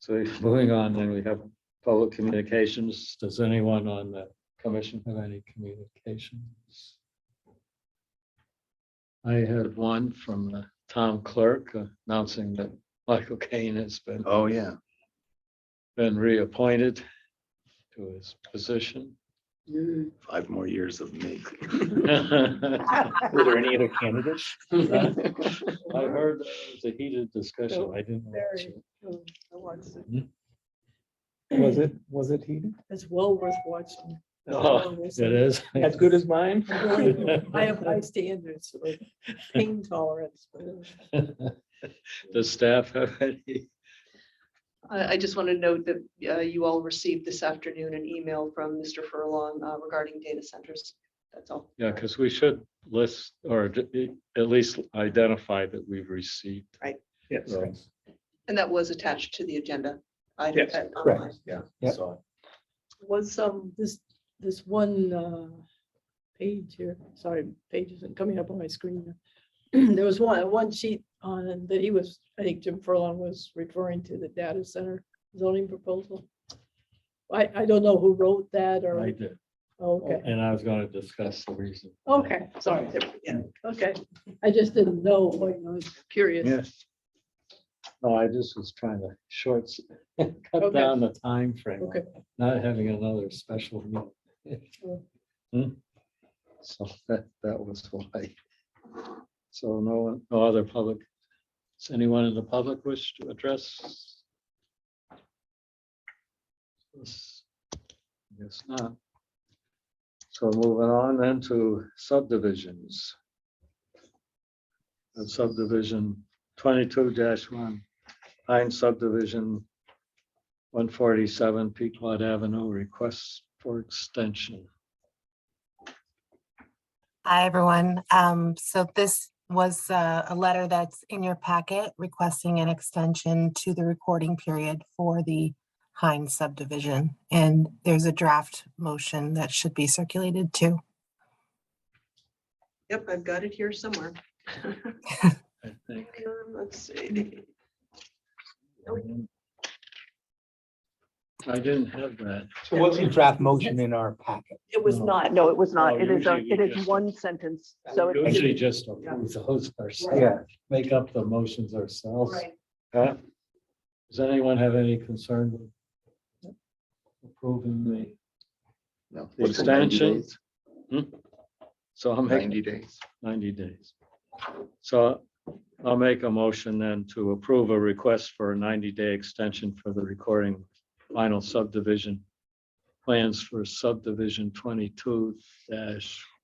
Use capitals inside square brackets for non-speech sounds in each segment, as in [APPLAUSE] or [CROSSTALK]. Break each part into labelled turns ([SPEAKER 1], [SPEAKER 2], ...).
[SPEAKER 1] So [LAUGHS] moving on, then we have public communications. Does anyone on the commission have any communications? I had one from the town clerk announcing that Michael Kane has been,
[SPEAKER 2] Oh, yeah.
[SPEAKER 1] been reappointed to his
[SPEAKER 3] [LAUGHS]
[SPEAKER 1] position.
[SPEAKER 2] Five more years of me.
[SPEAKER 1] I
[SPEAKER 4] Were there any other
[SPEAKER 1] [LAUGHS]
[SPEAKER 4] candidates?
[SPEAKER 1] heard it was a heated discussion. I didn't. watch it.
[SPEAKER 3] Was it, was it heated?
[SPEAKER 4] It's well worth watching.
[SPEAKER 1] Oh, It is.
[SPEAKER 3] [LAUGHS] As good
[SPEAKER 1] [LAUGHS]
[SPEAKER 3] as mine?
[SPEAKER 4] I have high standards for pain tolerance.
[SPEAKER 1] [LAUGHS] Does staff have any?
[SPEAKER 5] I, I just want to note that uh, you all received this afternoon an email from Mr. Furlong uh, regarding data centers. That's all.
[SPEAKER 1] Yeah, because we should list or d- i- at least identify that we've received.
[SPEAKER 3] Yes.
[SPEAKER 1] Right.
[SPEAKER 5] And that was attached to the agenda. item
[SPEAKER 3] Yes,
[SPEAKER 5] at-
[SPEAKER 3] correct.
[SPEAKER 5] online.
[SPEAKER 2] Yeah.
[SPEAKER 3] Yep.
[SPEAKER 2] saw it.
[SPEAKER 4] Was um, this, this one uh, page here, sorry, page isn't coming up on my screen. [CLEARS THROAT] now. There was one, one sheet on that he was, I think Jim Furlong was referring to the data center zoning proposal. I, I don't know who wrote that or,
[SPEAKER 1] I did,
[SPEAKER 4] okay,
[SPEAKER 1] and I was going to discuss the reason.
[SPEAKER 4] okay, sorry,
[SPEAKER 5] Yeah.
[SPEAKER 4] okay. I just didn't know, you know, I was curious.
[SPEAKER 1] Yes. No, I just was trying to shorts, [LAUGHS] cut
[SPEAKER 4] Okay.
[SPEAKER 1] down the time frame.
[SPEAKER 4] Okay.
[SPEAKER 1] Not having another special. meeting.
[SPEAKER 4] Oh.
[SPEAKER 1] Hmm. So [LAUGHS] that, that was why. So no, one, no other public, does anyone in the public wish to address? Yes, Yes, not. So moving on then to subdivisions. And subdivision twenty-two one, Pine subdivision, one forty-seven Pequot Avenue, requests for extension.
[SPEAKER 6] Hi, everyone. Um, so this was uh, a letter that's in your packet requesting an extension to the recording period for the Heinz subdivision. And there's a draft motion that should be circulated too.
[SPEAKER 5] Yep, I've got it here somewhere.
[SPEAKER 1] I think.
[SPEAKER 5] Um, Let's see.
[SPEAKER 1] I didn't have that.
[SPEAKER 3] So what's the draft motion in our packet?
[SPEAKER 7] It was
[SPEAKER 1] No.
[SPEAKER 7] not, no, it was not.
[SPEAKER 1] No,
[SPEAKER 7] It is, a.
[SPEAKER 1] usually
[SPEAKER 7] it
[SPEAKER 1] we
[SPEAKER 7] is
[SPEAKER 1] just-
[SPEAKER 7] one sentence, so it-
[SPEAKER 1] Usually just approve those ourselves,
[SPEAKER 3] Yeah.
[SPEAKER 1] make up the motions ourselves.
[SPEAKER 5] Right.
[SPEAKER 1] Huh? Does anyone have any concern with approving the
[SPEAKER 2] No.
[SPEAKER 1] The
[SPEAKER 2] What's it, 90
[SPEAKER 1] extension?
[SPEAKER 2] days?
[SPEAKER 1] So I'll make
[SPEAKER 2] Ninety days.
[SPEAKER 1] ninety days. So I'll make a motion then to approve a request for a ninety-day extension for the recording final subdivision plans for subdivision twenty-two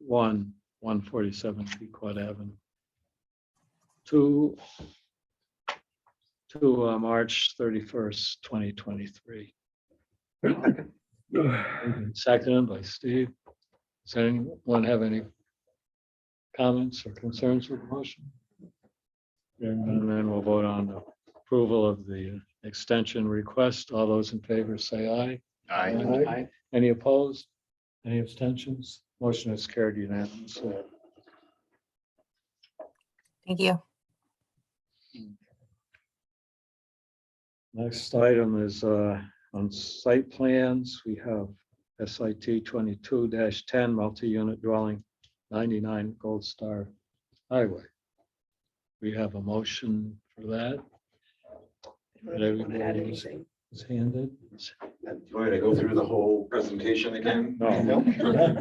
[SPEAKER 1] one, one forty-seven Pequot Avenue. To to uh, March thirty-first, twenty twenty-three. Seconded by Steve. Does anyone have any comments or concerns with the motion? And then we'll vote on the approval of the extension request. All those in favor say aye.
[SPEAKER 2] I,
[SPEAKER 1] Any opposed? Any abstentions? Motion is carried unanimously.
[SPEAKER 6] Thank you.
[SPEAKER 1] Next item is uh, on site plans. We have SIT twenty-two ten multi-unit dwelling ninety-nine Gold Star Highway. We have a motion for that.
[SPEAKER 5] I don't want to add
[SPEAKER 1] Everybody's-
[SPEAKER 5] anything.
[SPEAKER 1] It's handed.
[SPEAKER 8] Do you want me to go through the whole presentation again?
[SPEAKER 1] No,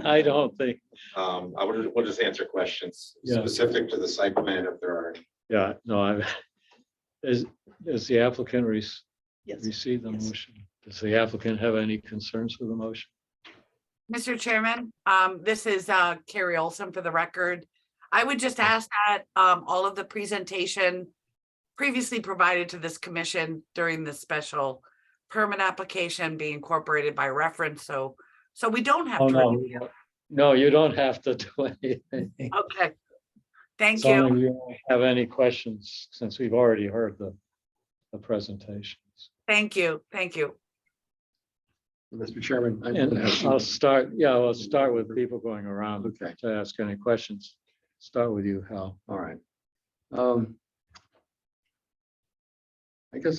[SPEAKER 1] I don't think,
[SPEAKER 8] [LAUGHS] Um, I would, we'll just answer questions
[SPEAKER 1] Yeah.
[SPEAKER 8] specific to the site plan if there are. any.
[SPEAKER 1] yeah, no, I, is, is the applicant rec-
[SPEAKER 5] Yes.
[SPEAKER 1] receive the
[SPEAKER 5] Yes.
[SPEAKER 1] motion? Does the applicant have any concerns with the motion?
[SPEAKER 9] Mr. Chairman, um, this is, uh, Carrie Olson for the record. I would just ask that, um, all of the presentation previously provided to this commission during the special permit application be incorporated by reference, so, so we don't have
[SPEAKER 1] Oh,
[SPEAKER 9] to.
[SPEAKER 1] no.
[SPEAKER 9] review.
[SPEAKER 1] No, you don't have to [LAUGHS] do anything.
[SPEAKER 9] Okay. Thank
[SPEAKER 1] So
[SPEAKER 9] you.
[SPEAKER 1] if you don't Have any questions, since we've already heard the, the presentations?
[SPEAKER 9] Thank you. Thank you.
[SPEAKER 2] Mr. Chairman. I-
[SPEAKER 1] And I'll start, yeah, I'll start with people going around
[SPEAKER 2] Okay.
[SPEAKER 1] to ask any questions. Start with you, Hal.
[SPEAKER 2] All right. Um,